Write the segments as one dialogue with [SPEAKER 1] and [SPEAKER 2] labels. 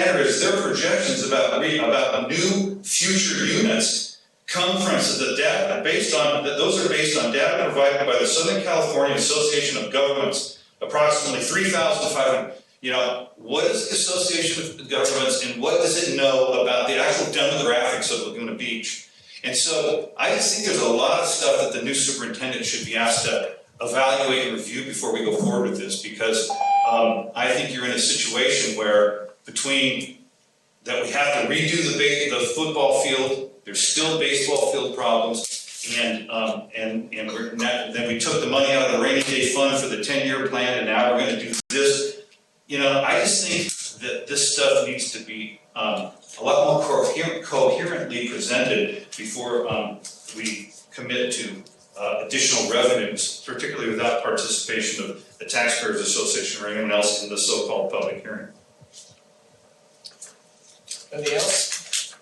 [SPEAKER 1] is their projections about re, about new future units come from, so the data, based on, that those are based on data provided by the Southern California Association of Governments, approximately three thousand five hundred. You know, what is the Association of Governments and what does it know about the actual demographics of Laguna Beach? And so I just think there's a lot of stuff that the new superintendent should be asked to evaluate and review before we go forward with this, because um, I think you're in a situation where between that we have to redo the ba- the football field, there's still baseball field problems, and, um, and, and we're, and that- then we took the money out of the rainy day fund for the ten-year plan, and now we're gonna do this. You know, I just think that this stuff needs to be, um, a lot more coher- coherently presented before, um, we commit to, uh, additional revenues, particularly without participation of the taxpayers association or anyone else in the so-called public hearing.
[SPEAKER 2] Anything else?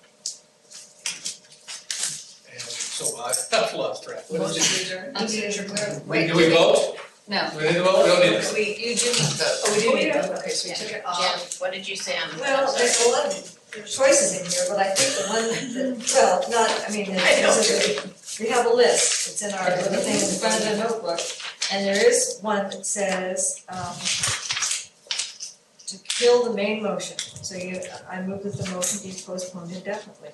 [SPEAKER 2] And so I have lost track. What is it?
[SPEAKER 3] Wait,
[SPEAKER 2] Do we vote?
[SPEAKER 3] No.
[SPEAKER 2] Do we need to vote? We don't need to.
[SPEAKER 3] We, you do need vote.
[SPEAKER 4] Oh, we do need to vote.
[SPEAKER 3] Okay, so we
[SPEAKER 4] Yeah.
[SPEAKER 3] took it
[SPEAKER 4] Jen,
[SPEAKER 3] off.
[SPEAKER 4] what did you say on the?
[SPEAKER 5] Well, there's a lot of choices in here, but I think the one that, well, not, I mean,
[SPEAKER 4] I know.
[SPEAKER 5] it's, we have a list, it's in our little thing in front of the notebook. And there is one that says, um, to kill the main motion, so you, I move that the motion be postponed indefinitely.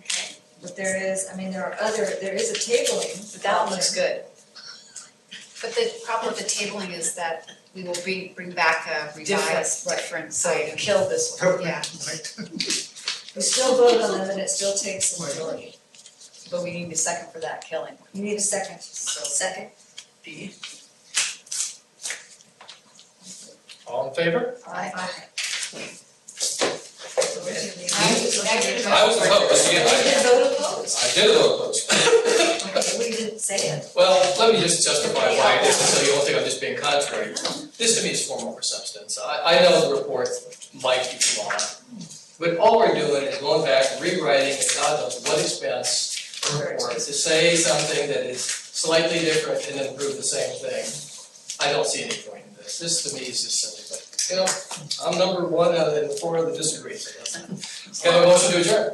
[SPEAKER 4] Okay.
[SPEAKER 5] But there is, I mean, there are other, there is a tabling.
[SPEAKER 3] But that one looks
[SPEAKER 5] option.
[SPEAKER 3] good.
[SPEAKER 4] But the problem with the tabling is that we will bring, bring back a revised, different
[SPEAKER 3] So
[SPEAKER 4] item.
[SPEAKER 3] kill this one,
[SPEAKER 4] Yeah,
[SPEAKER 5] We still vote on them and it still takes a majority.
[SPEAKER 3] but we need a second for that killing.
[SPEAKER 5] You need a second, so second.
[SPEAKER 2] All in favor?
[SPEAKER 3] I,
[SPEAKER 2] I was opposed, yeah,
[SPEAKER 5] We
[SPEAKER 2] I,
[SPEAKER 5] did vote opposed.
[SPEAKER 2] I did vote opposed.
[SPEAKER 5] Okay, we didn't say it.
[SPEAKER 2] Well, let me just justify why this, is so you won't think I'm just being contrary. This to me is form over substance. I, I know the report might be flawed, but all we're doing is going back, rewriting at God knows what expense a report to say something that is slightly different and then prove the same thing. I don't see any point in this. This to me is just silly, but, you know, I'm number one out of the four that disagree, so that's. Can I have a motion to adjourn?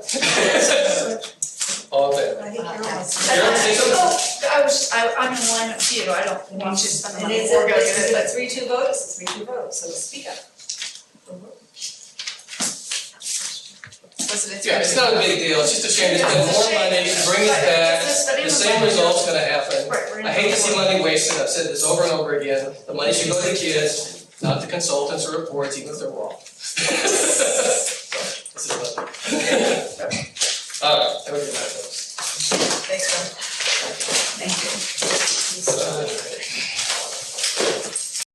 [SPEAKER 2] All in favor?
[SPEAKER 5] I think you're on.
[SPEAKER 2] Sharon, say something?
[SPEAKER 6] Oh, I was, I, I'm in line with you, I don't want to spend the
[SPEAKER 5] And
[SPEAKER 6] money
[SPEAKER 5] it's
[SPEAKER 6] or
[SPEAKER 5] a,
[SPEAKER 6] go
[SPEAKER 5] it's
[SPEAKER 6] get
[SPEAKER 5] a
[SPEAKER 6] it,
[SPEAKER 5] three two vote, it's a three two vote, so speak up.
[SPEAKER 4] Elizabeth.
[SPEAKER 2] Yeah, it's not a big deal, it's just a shame, it's been more money, bring it back, the same result's gonna happen.
[SPEAKER 6] Right, we're in.
[SPEAKER 2] I hate to see money wasted, I've said this over and over again, the money should go to the kids, not to consultants or reports, even if they're wrong. So, this is what- Alright, have a good night, folks.
[SPEAKER 3] Thanks, Jen. Thank you.
[SPEAKER 2] Uh,